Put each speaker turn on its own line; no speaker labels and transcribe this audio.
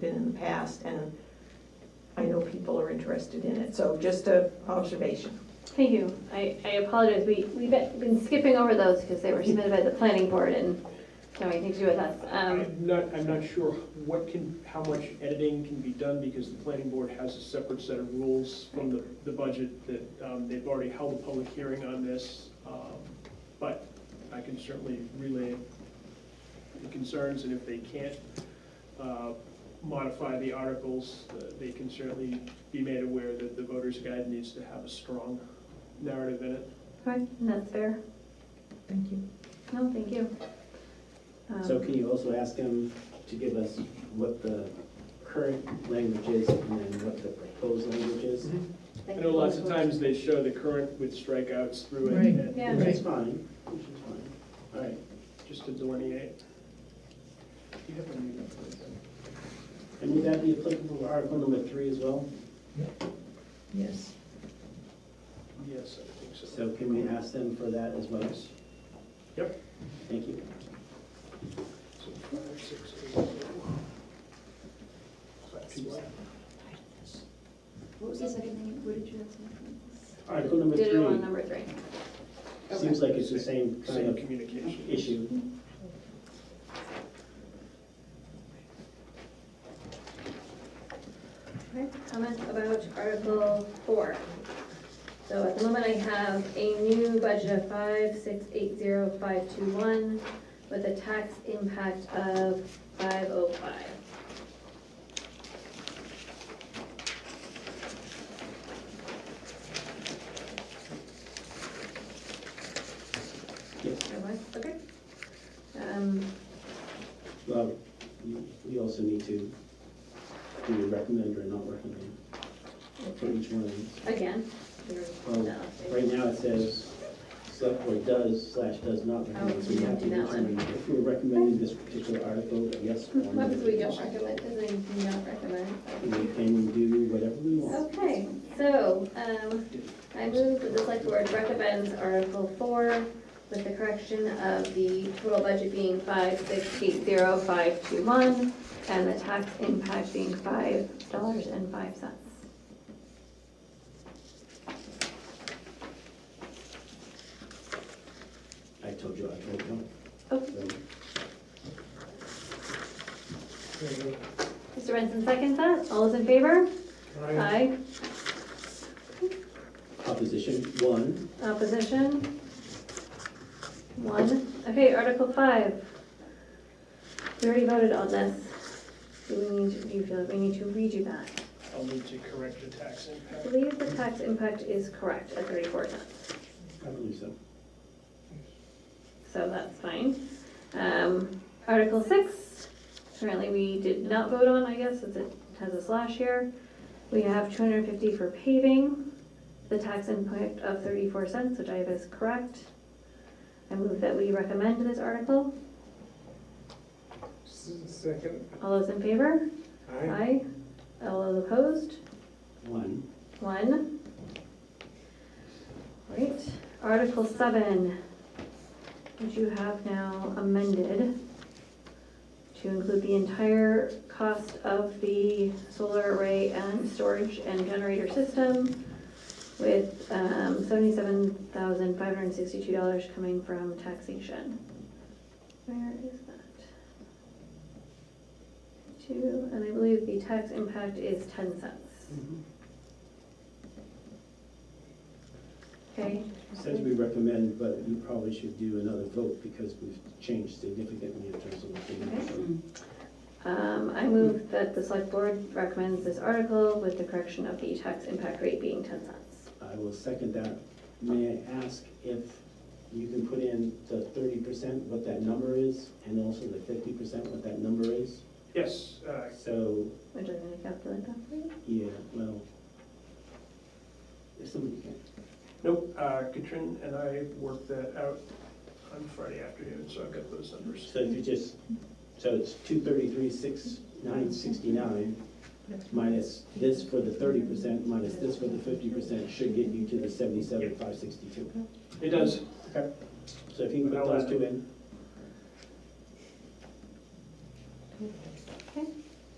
been in the past, and I know people are interested in it, so just a observation.
Thank you. I, I apologize. We, we've been skipping over those because they were submitted by the planning board and don't have anything to do with us. Um,
I'm not, I'm not sure what can, how much editing can be done, because the planning board has a separate set of rules from the, the budget that, um, they've already held a public hearing on this, um, but I can certainly relay the concerns, and if they can't, uh, modify the articles, uh, they can certainly be made aware that the voter's guide needs to have a strong narrative in it.
Okay, and that's fair.
Thank you.
No, thank you. Um,
So can you also ask him to give us what the current language is and then what the proposed language is?
I know lots of times they show the current with strikeouts through it, and
Yeah.
Which is fine, which is fine. All right,
just to delineate. Do you have a meeting?
and would that be applicable to Article number three as well?
Yes.
Yes, I think so.
So can we ask them for that as well?
Yep.
Thank you.
So five, six, eight, oh.
What was the second thing, what did you have? second?
Article number
Did it on
three,
number three.
seems like it's the same kind
Same
of
communication.
issue.
Okay, Comments about Article four. So at the moment, I have a new budget of five, six, eight, zero, five, two, one, with a tax impact of five oh five.
Yes.
Okay. Um,
Well, you, you also need to do a recommend or not recommend for each one of these.
again, you're-
Well,
no,
Oh, right now it says, select board does slash does not
Oh,
recommend. So
we
you
don't
have to
do that
determine If we're recommending this particular article, yes or no.
what if we don't recommend, does anything you not recommend?
We can do whatever we want.
Okay, so, um, I move that the select board recommends Article four with the correction of the total budget being five six eight zero five two one and the tax impact being five dollars and five cents.
I told you, I told you.
Okay,
So,
Mr. Benson seconds that, all those in favor? Aye.
Opposition, one.
Opposition? One. Okay, Article five. We already voted on this. Do we need, to- do you feel that we need to redo that?
I'll need to correct the tax
I
impact.
believe the tax impact is correct at thirty-four cents,
I believe so.
so that's fine. Um, Article six, apparently we did not vote on, I guess, since it has a slash here. We have two hundred and fifty for paving, the tax impact of thirty-four cents, which I have is correct. I move that we recommend this article.
Second,
All those in favor?
aye.
Aye. All those opposed?
One.
One. Great. Article seven, which you have now amended to include the entire cost of the solar array and storage and generator system with um, $77,562 coming from taxation. Where is that? Two, and I believe the tax impact is 10 cents. Okay.
Says we recommend, but you probably should do another vote because we've changed significantly in terms of what we
Okay.
do.
Um, I move that the select board recommends this article with the correction of the tax impact rate being ten cents.
I will second that. May I ask if you can put in the thirty percent, what that number is, and also the fifty percent, what that number is?
Yes, uh,
So,
Which I'm gonna calculate that for you.
yeah, well, if somebody can.
nope, uh, Katrin and I worked that out on Friday afternoon, so I've got those numbers.
So if you just, so it's two thirty-three, six, nine sixty-nine, minus this for the thirty percent, minus this for the fifty percent, should get you to the seventy-seven, five sixty-two.
It does,
So if you can put those two in.